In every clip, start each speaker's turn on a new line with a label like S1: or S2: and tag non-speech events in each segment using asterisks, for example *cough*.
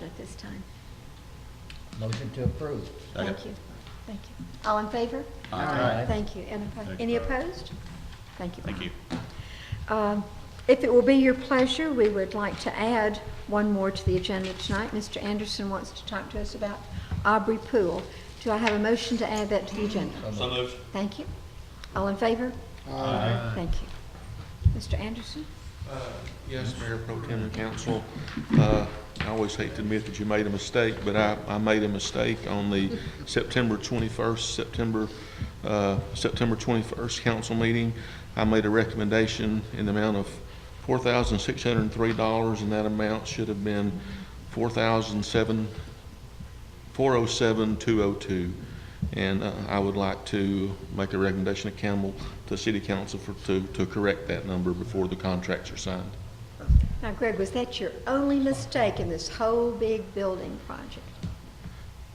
S1: motion at this time.
S2: Motion to approve.
S3: Second.
S1: Thank you, thank you. All in favor?
S2: Aye.
S1: Thank you. And oppo-
S3: Thank you,
S1: Any
S3: Barb.
S1: opposed? Thank you.
S3: Thank
S1: Bob.
S3: you.
S1: Um, If it will be your pleasure, we would like to add one more to the agenda tonight. Mr. Anderson wants to talk to us about Aubrey Poole. Do I have a motion to add that to the agenda?
S3: So moved.
S1: Thank you. All in favor? Aye. Thank you. Mr. Anderson?
S4: Yes, Mayor Pro Tem and Council, uh, I always hate to admit that you made a mistake, but I, I made a mistake on the September 21st, September, uh, September 21st council meeting. I made a recommendation in the amount of $4,603, and that amount should have been 4,007, 407,202. And uh, I would like to make a recommendation to Campbell, to City Council for, to, to correct that number before the contracts are signed.
S1: Now Greg, was that your only mistake in this whole big building project?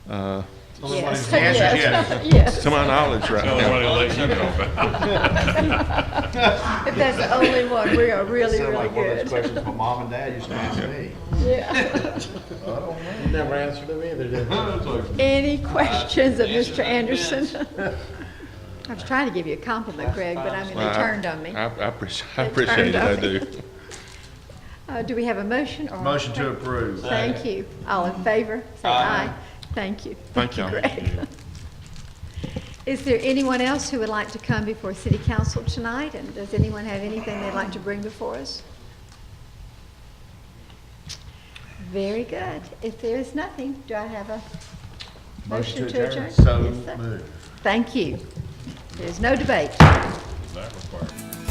S4: Uh,
S1: Yes.
S3: The answer is
S1: *laughs* Yes.
S4: To my knowledge right
S3: Tell
S4: now.
S3: everybody to let you know.
S1: If that's the only one, we are really,
S5: Sound
S1: really
S5: like one of those
S1: good.
S5: questions my mom and dad used to ask me.
S1: Yeah.
S5: Never answered them either, did they?
S1: Any questions of Mr. Anderson? I was trying to give you a compliment, Greg, but I mean, they
S4: Well, I-
S1: turned on me.
S4: I, I appreciate, I
S1: They
S4: appreciate it, I
S1: turned on me.
S4: do.
S1: Uh, Do we have a motion or?
S2: Motion to approve.
S1: Thank you. All in favor, say aye. Thank you. *laughs*
S4: Thank y'all.
S1: Greg. Is there anyone else who would like to come before city council tonight? And does anyone have anything they'd like to bring before us? Very good. If there is nothing, do I have a motion to adjourn?
S2: So
S1: Yes, sir.
S2: moved.
S1: Thank you. There's no debate.
S3: That requires-